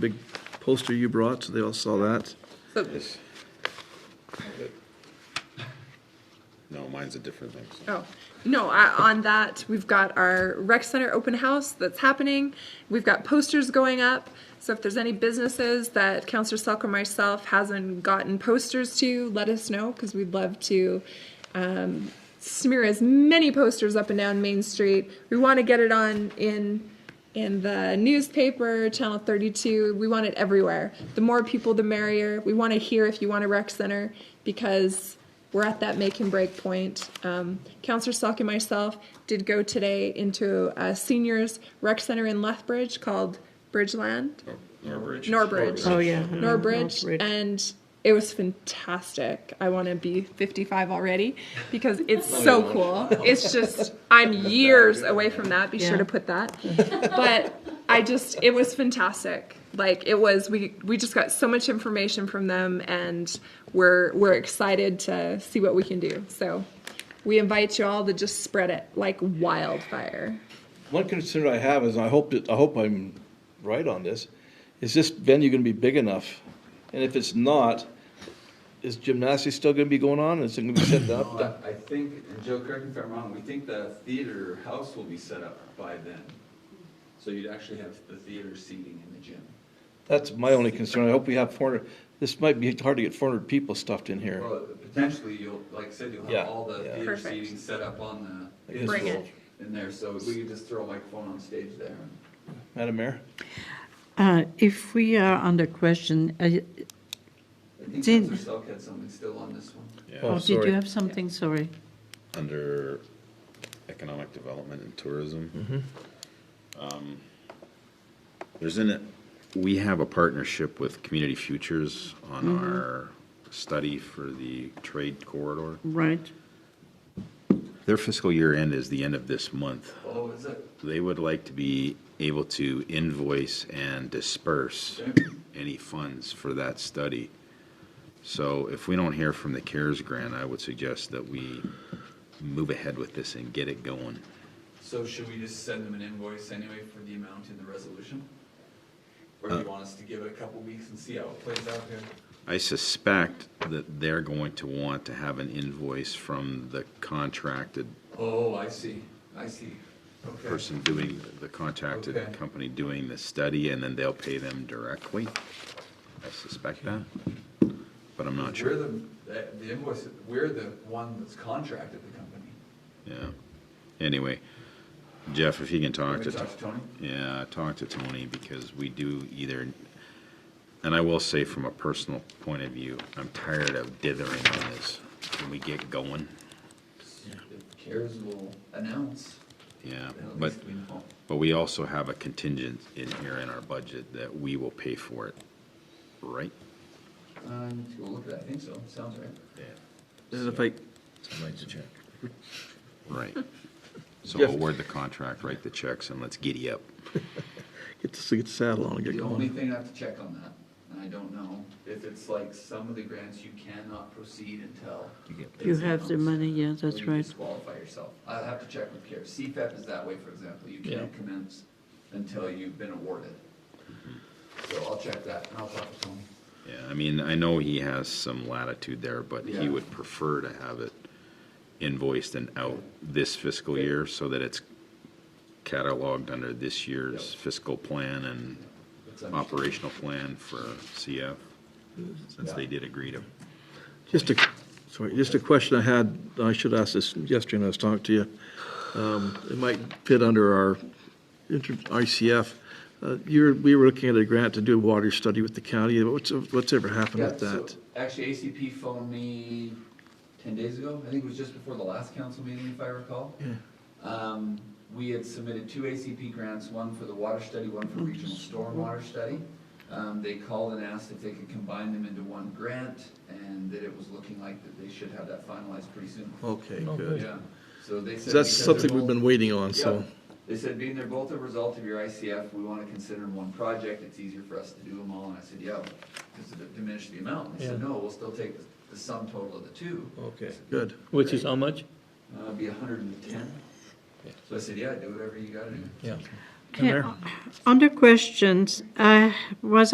big poster you brought, so they all saw that. So Yes. No, mine's a different thing. so. Oh, no, I, on that, we've got our rec center open house that's happening. We've got posters going up. So if there's any businesses that Counselor Selk or myself hasn't gotten posters to, let us know because we'd love to um, smear as many posters up and down Main Street. We want to get it on in in the newspaper, Channel 32. We want it everywhere. The more people, the merrier. We want to hear if you want a rec center because we're at that make and break point. Um, Counselor Salk and myself did go today into a seniors rec center in Lethbridge called Bridgeland. Nor- Norbridge. Norbridge. Oh, yeah. Norbridge, and it was fantastic. I want to be 55 already because it's so cool. It's just I'm years away from that. Be sure Yeah. to put that. But I just it was fantastic. Like it was we we just got so much information from them and we're we're excited to see what we can do. So we invite you all to just spread it like wildfire. One concern I have is, I hope, that- I hope I'm right on this, is this venue gonna be big enough? And if it's not, is gymnastics still gonna be going on? Is it gonna be set up? I I think, and Joe, correct me if I'm wrong, we think the theater house will be set up by then. So you'd actually have the theater seating in the gym. That's my only concern. I hope we have four hundred, this might be hard to get four hundred people stuffed in here. Well, potentially, you'll, like I said, you'll Yeah, have all the yeah. theater Perfect. seating set up on I the. guess Bring we'll- it. In there, so we could just throw a microphone on stage there. Madam Mayor? Uh, If we are under question, uh, I think Did- Counselor Selk had something still on this one. Oh, oh, did sorry. you have something, sorry? Under economic development and tourism. um, There's in it, we have a partnership with Community Futures on our study for the trade corridor. Right. Their fiscal year end is the end of this month. Oh, is it? They would like to be able to invoice and disperse any funds for that study. So if we don't hear from the CARES grant, I would suggest that we move ahead with this and get it going. So should we just send them an invoice anyway for the amount in the resolution? Or Uh. do you want us to give it a couple weeks and see how it plays out here? I suspect that they're going to want to have an invoice from the contracted Oh, I see, I see. Okay. person doing, the contracted Okay. company doing the study, and then they'll pay them directly. I suspect that, but I'm not We're sure. the, that- the invoice, we're the one that's contracted the company. Yeah. Anyway, Jeff, if you Can can talk we to, talk to Tony? yeah, talk to Tony because we do either, and I will say from a personal point of view, I'm tired of dithering on this. Can we get going? If CARES will announce, Yeah, then at but, least we know. but we also have a contingent in here in our budget that we will pay for it, right? Uh, I need to go look at that, I think so, sounds right. Yeah. And if I, Right. So Jeff- award the contract, write the checks, and let's giddy up. get the, get the saddle on and get The only going. thing I have to check on that, and I don't know, if it's like some of the grants, you cannot proceed until. You have the money, yeah, Or that's you right. disqualify yourself. I'll have to check with CARES. CFAP is that way, for example. You can't commence until you've been awarded. Mm-hmm. So I'll check that and I'll talk to Tony. Yeah, I mean, I know he has some latitude there, but he Yeah. would prefer to have it invoiced and out this fiscal year so that it's cataloged under this year's fiscal plan and It's under- operational plan for CF, since they did agree to. Just a, sorry, just a question I had, I should ask this yesterday when I was talking to you. Um, It might fit under our inter- ICF. Uh, You're, we were looking at a grant to do a water study with the county. What's, what's ever happened Yeah, with so that? Actually, ACP phoned me ten days ago. I think it was just before the last council meeting, if I recall. Um, we had submitted two ACP grants, one for the water study, one for regional stormwater study. Um, they called and asked if they could combine them into one grant, and that it was looking like that they should have that finalized pretty soon. Okay, good. Yeah, so they said. That's because something they're we've both- been waiting on, so. Yep. They said, being they're both a result of your ICF, we want to consider them one project, it's easier for us to do them all, and I said, yeah, because it diminished the amount, they said, Yeah. no, we'll still take the- the sum total of the two. Okay, good. Which is how much? Uh, it'd be a hundred and ten. So I said, yeah, do whatever you gotta do. Yeah. Okay, Under questions, I was